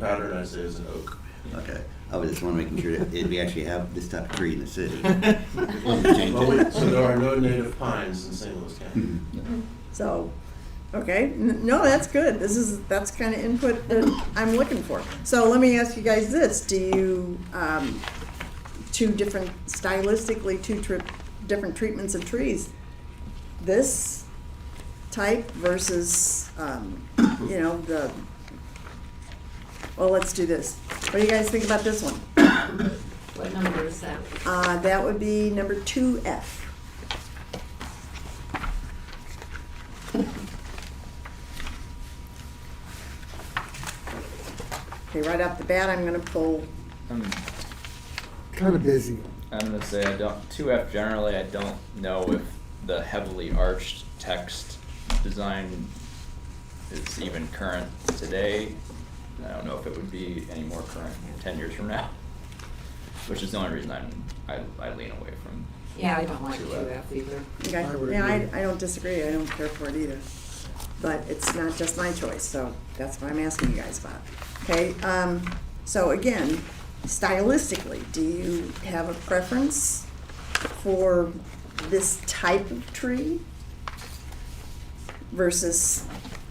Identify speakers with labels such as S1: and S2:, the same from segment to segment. S1: pattern I say is an oak.
S2: Okay, I was just wondering, making sure that it- we actually have this type of tree in the city. change
S1: Well,
S2: it.
S1: we- So there are no native pines in St. Louis
S3: Mm-hmm.
S1: County.
S2: Mhm.
S4: So, okay, n- no, that's good. This is, that's kind of input that I'm looking for. So let me ask you guys this, do you, um, two different, stylistically, two tri- different treatments of trees? This type versus, um, you know, the, well, let's do this. What do you guys think about this one?
S5: What number is that?
S4: Uh, that would be number two F. Okay, right off the bat, I'm gonna pull,
S6: I'm,
S3: kind of busy.
S6: Um, I'm gonna say I don't. Two F generally, I don't know if the heavily arched text design is even current today. And I don't know if it would be any more current ten years from now, which is the only reason I'm, I I lean away from.
S5: Yeah, I don't like
S6: Two
S5: two
S6: F.
S5: F either.
S4: okay,
S3: I would
S4: yeah,
S3: agree.
S4: I, I don't disagree, I don't care for it either. But it's not just my choice, so that's what I'm asking you guys about. Okay, um, so again, stylistically, do you have a preference for this type of tree versus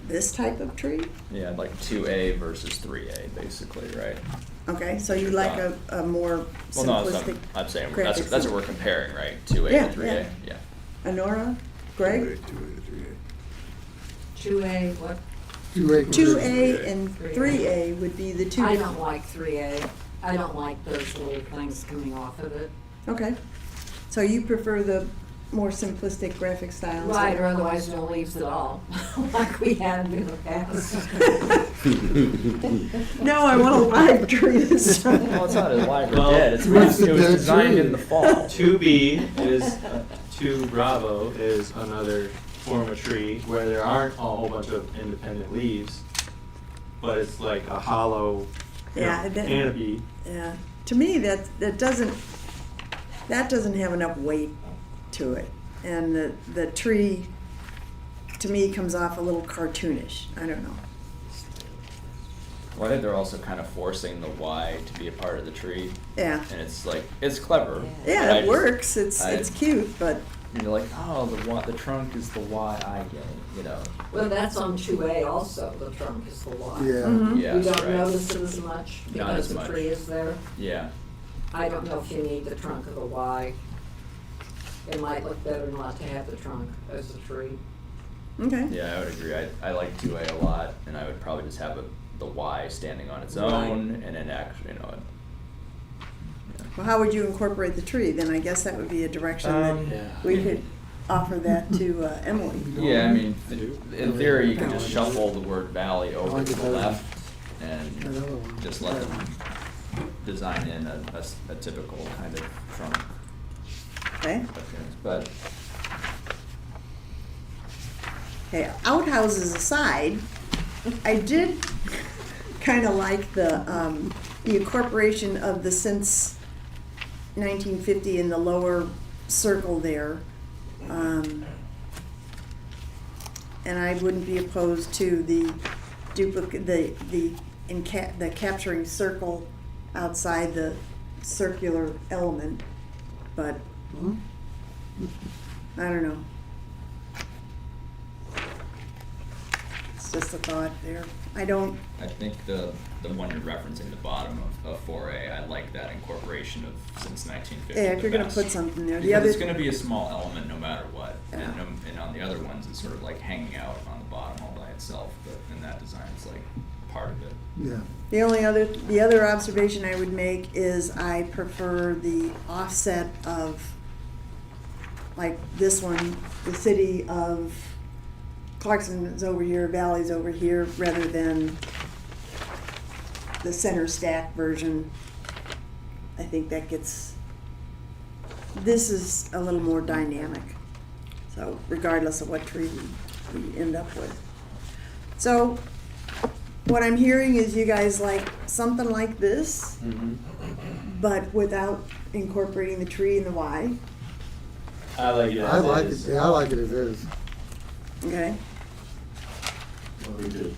S4: this type of tree?
S6: Yeah, like two A versus three A, basically, right?
S4: Okay, so you like a, a more
S6: Well, no, that's,
S4: simplistic.
S6: I'm, I'm saying
S4: graphic
S6: that's that's what we're
S4: sim-
S6: comparing, right? Two A
S4: Yeah,
S6: to three A,
S4: yeah.
S6: yeah.
S4: Honora, Greg,
S5: Two A, what?
S4: two A and
S5: Three A.
S4: three A would be the two.
S5: I don't like three A. I don't like those little things coming off of it.
S4: Okay, so you prefer the more simplistic graphic style?
S5: Right, or otherwise no leaves at all, like we had in the past.
S4: No, I want a live tree this time.
S6: Well, it's not alive or
S7: Well,
S6: dead. It's,
S3: it's
S6: it was
S3: dead
S6: designed
S3: tree.
S6: in the fall.
S7: Two B is uh, two Bravo is another form of tree where there aren't a whole bunch of independent leaves, but it's like a hollow you know,
S4: Yeah, I bet.
S7: canopy.
S4: Yeah, to me, that, that doesn't, that doesn't have enough weight to it. And the, the tree, to me, comes off a little cartoonish, I don't know.
S6: Well, I think they're also kind of forcing the Y to be a part of the tree,
S4: Yeah,
S6: and it's like it's clever. but I
S4: yeah, it
S6: just-
S4: works, it's,
S6: I-
S4: it's cute, but,
S6: And you're like, oh, the y, the trunk is the Y I get, you know?
S5: Well, that's on two A also, the trunk is the lot.
S3: Yeah,
S4: Mhm.
S6: Yeah,
S5: You
S6: that's
S5: don't
S6: right.
S5: notice it as much
S6: Not
S5: because
S6: as
S5: the
S6: much.
S5: tree is there.
S6: Yeah,
S5: I don't know if you need the trunk of the Y. It might look better not to have the trunk as a tree.
S4: okay,
S6: yeah, I would agree. I, I like two A a lot, and I would probably just have a, the Y standing on its
S5: Right.
S6: own, and then actually, you know, it-
S4: well, how would you incorporate the tree? Then I guess that would be a direction
S6: Um,
S4: that
S7: Yeah.
S4: we could offer that to uh, Emily.
S6: Yeah, I mean,
S3: I do.
S6: in theory, you could just
S3: Yeah.
S6: shuffle the word valley over
S3: like
S6: to
S3: it
S6: the
S3: better.
S6: left
S3: Another
S6: and
S3: one.
S6: just let them
S3: Yeah.
S6: design in a, a s- a typical kind of trunk
S4: Okay,
S6: appearance, but,
S4: okay, outhouses aside, I did kind of like the, um, the incorporation of the since nineteen fifty in the lower circle there. Um, And I wouldn't be opposed to the duplicate, the, the, in ca- the capturing circle outside the circular element, but
S3: Hmm?
S4: I don't know. It's just a thought there. I don't,
S6: I think the, the one you're referencing, the bottom of, of four A, I like that incorporation of since nineteen fifty.
S4: Yeah, if you're gonna put something there, the
S6: Because it's
S4: other-
S6: gonna be a small element no matter what, and,
S4: Yeah.
S6: um, and on the other ones, it's sort of like hanging out on the bottom all by itself, but in that design, it's like part of it.
S3: yeah.
S4: the only other, the other observation I would make is I prefer the offset of, like this one, the city of Clarkson is over here, Valley's over here, rather than the center stack version. I think that gets, this is a little more dynamic. So regardless of what tree we we end up with. So what I'm hearing is you guys like something like this,
S7: Mhm.
S4: but without incorporating the tree and the Y,
S7: I like it.
S3: I
S7: as
S3: like it,
S7: is.
S3: yeah, I like it as is.
S4: okay?
S1: What we do.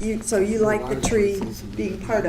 S4: You, so you like the tree being part of.